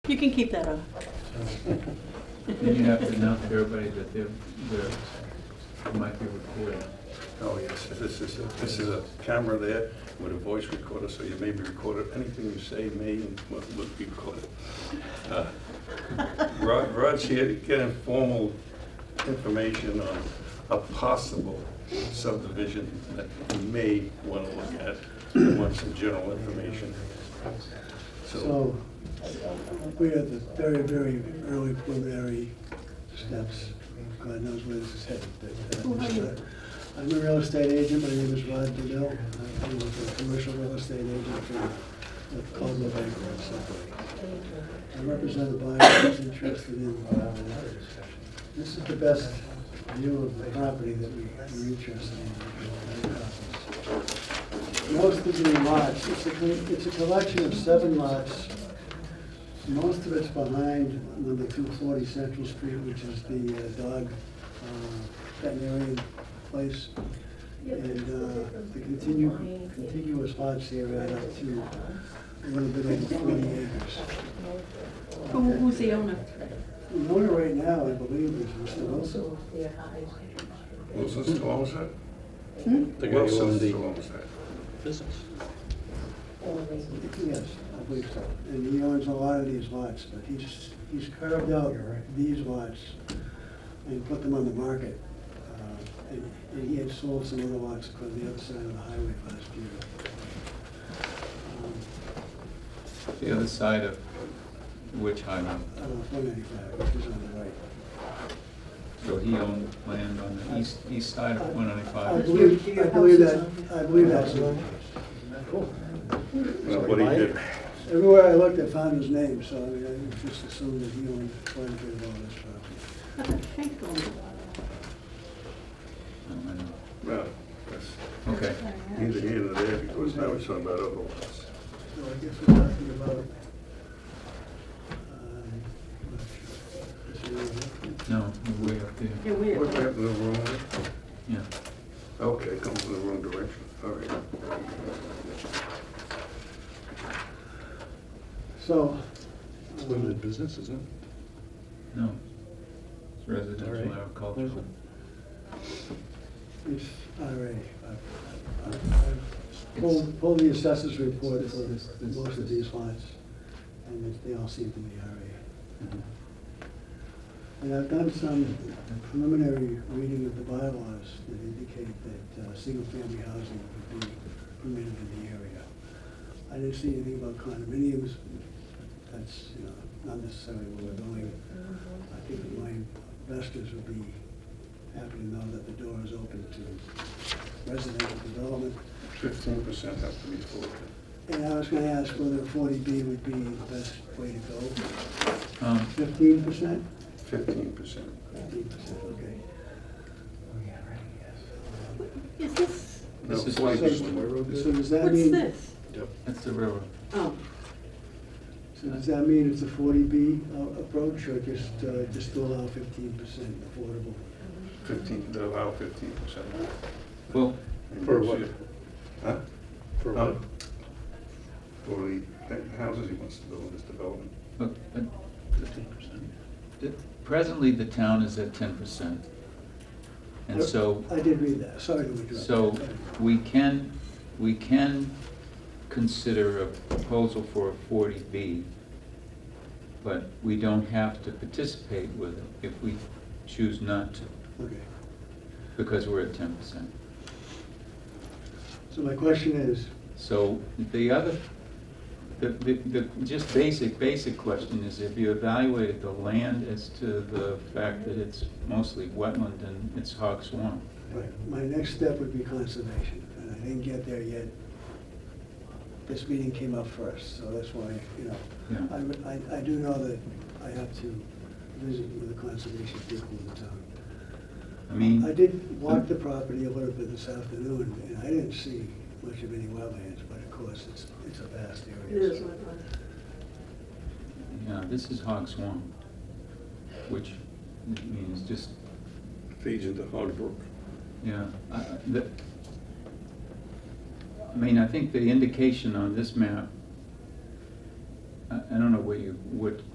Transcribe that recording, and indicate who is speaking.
Speaker 1: You can keep that on.
Speaker 2: Then you have to announce to everybody that they're, they're, they might be recorded.
Speaker 3: Oh, yes, this is, a- this is a camera there with a voice recorder, so you may be recorded, anything you say may and will will be recorded. Uh, Rod, Rod's here to get informal information on a possible subdivision that you may want to look at, and want some general information. So,
Speaker 4: So, we're at the very, very early preliminary steps. God knows where this is headed. but, uh,
Speaker 1: Who are you?
Speaker 4: uh, I'm a real estate agent, my name is Rod Deville. I- I'm a commercial real estate agent uh, for Caldwell Banker and I'm represented by those interested in, uh, this is the best view of the property that we- we're interested in. Most of the lots, it's a, con- it's a collection of seven lots. Most of it's behind number two forty Central Street, which is the uh, dog uh, veterinarian place. And uh, the continu- contiguous lots here add up to a little bit over forty acres.
Speaker 1: Who, who's the owner?
Speaker 4: The owner right now, I believe, is Mr. Wilson.
Speaker 3: Wilson still owns that?
Speaker 1: Hmm?
Speaker 5: The guy who
Speaker 3: Wilson
Speaker 5: owned the-
Speaker 3: still owns that.
Speaker 5: business.
Speaker 4: Yes, I believe so. And he owns a lot of these lots, but he's, he's carved out these lots and put them on the market. Uh, And and he had sold some other lots on the other side of the highway last year. Um,
Speaker 2: The other side of which highway?
Speaker 4: I don't know, 195, which is on the right.
Speaker 2: So he owned land on the east, east side of one
Speaker 4: I
Speaker 2: ninety-five?
Speaker 4: believe, I believe that, I believe that's the case.
Speaker 3: Well, What he did,
Speaker 4: Everywhere I looked, I found his name, so I mean, I just assumed that he owned quite a bit of all this property.
Speaker 1: I think owner.
Speaker 3: well, that's
Speaker 2: Oh, Okay,
Speaker 3: neither here nor there, because now we're talking about other ones.
Speaker 4: So I guess we're talking about, uh, um, is it-
Speaker 2: no, we're way up there,
Speaker 1: You're
Speaker 3: What
Speaker 1: weird.
Speaker 3: happened to the room?
Speaker 2: yeah.
Speaker 3: Okay, come from the wrong direction, all right.
Speaker 4: So,
Speaker 5: It's
Speaker 4: um,
Speaker 5: limited business, isn't it?
Speaker 2: No. It's residential
Speaker 5: Alright.
Speaker 2: agricultural.
Speaker 4: it's IRA. I- I- I Pulled, pulled the assessors report for
Speaker 2: It's- it's- it's-
Speaker 4: most of these lots, and it- they all seem to be IRA.
Speaker 2: Mhm.
Speaker 4: And I've done some preliminary reading of the bylaws that indicate that uh, single-family housing would be permitted in the area. I didn't see anything about condominiums, but that's, you know, not necessarily where we're going.
Speaker 1: Mm-hmm.
Speaker 4: I think that my investors would be happy to know that the door is open to residential development.
Speaker 3: Fifteen percent have to be full.
Speaker 4: And I was gonna ask whether forty B would be the best way to go.
Speaker 2: Um,
Speaker 4: Fifteen percent?
Speaker 3: Fifteen percent.
Speaker 4: Fifteen percent, okay.
Speaker 1: Is this,
Speaker 2: This is-
Speaker 3: forty percent.
Speaker 4: So does that
Speaker 1: what's
Speaker 4: mean?
Speaker 1: this?
Speaker 2: that's the railroad.
Speaker 1: Oh,
Speaker 4: So does that mean it's a forty B uh, approach or just, uh, just to allow fifteen percent affordable?
Speaker 3: Fifteen, they allow fifteen percent.
Speaker 2: Well,
Speaker 5: For what?
Speaker 3: Huh?
Speaker 5: For
Speaker 3: Huh?
Speaker 5: what?
Speaker 3: For the the houses he wants to build in this development.
Speaker 2: but, but
Speaker 5: Fifteen percent.
Speaker 2: it- presently, the town is at ten percent. And so,
Speaker 4: I did read that, sorry to interrupt.
Speaker 2: so we can, we can consider a proposal for a forty B, but we don't have to participate with it if we choose not to,
Speaker 4: Okay,
Speaker 2: because we're at ten percent.
Speaker 4: so my question is,
Speaker 2: So the other, the, the, the just basic, basic question is if you evaluated the land as to the fact that it's mostly wetland and it's hog swamp.
Speaker 4: Right, my next step would be conservation, and I didn't get there yet. This meeting came up first, so that's why, you know,
Speaker 2: Yeah.
Speaker 4: I would- I, I do know that I have to visit with the conservation people in the town.
Speaker 2: I mean.
Speaker 4: I did walk the property a little bit this afternoon, and I didn't see much of any wetlands, but of course, it's, it's a vast
Speaker 1: it is
Speaker 4: area.
Speaker 1: what it was.
Speaker 2: Yeah, this is hog swamp, which means just,
Speaker 3: Feeds into Hog Brook.
Speaker 2: yeah, I, I- the, I mean, I think the indication on this map, I, I don't know what you, what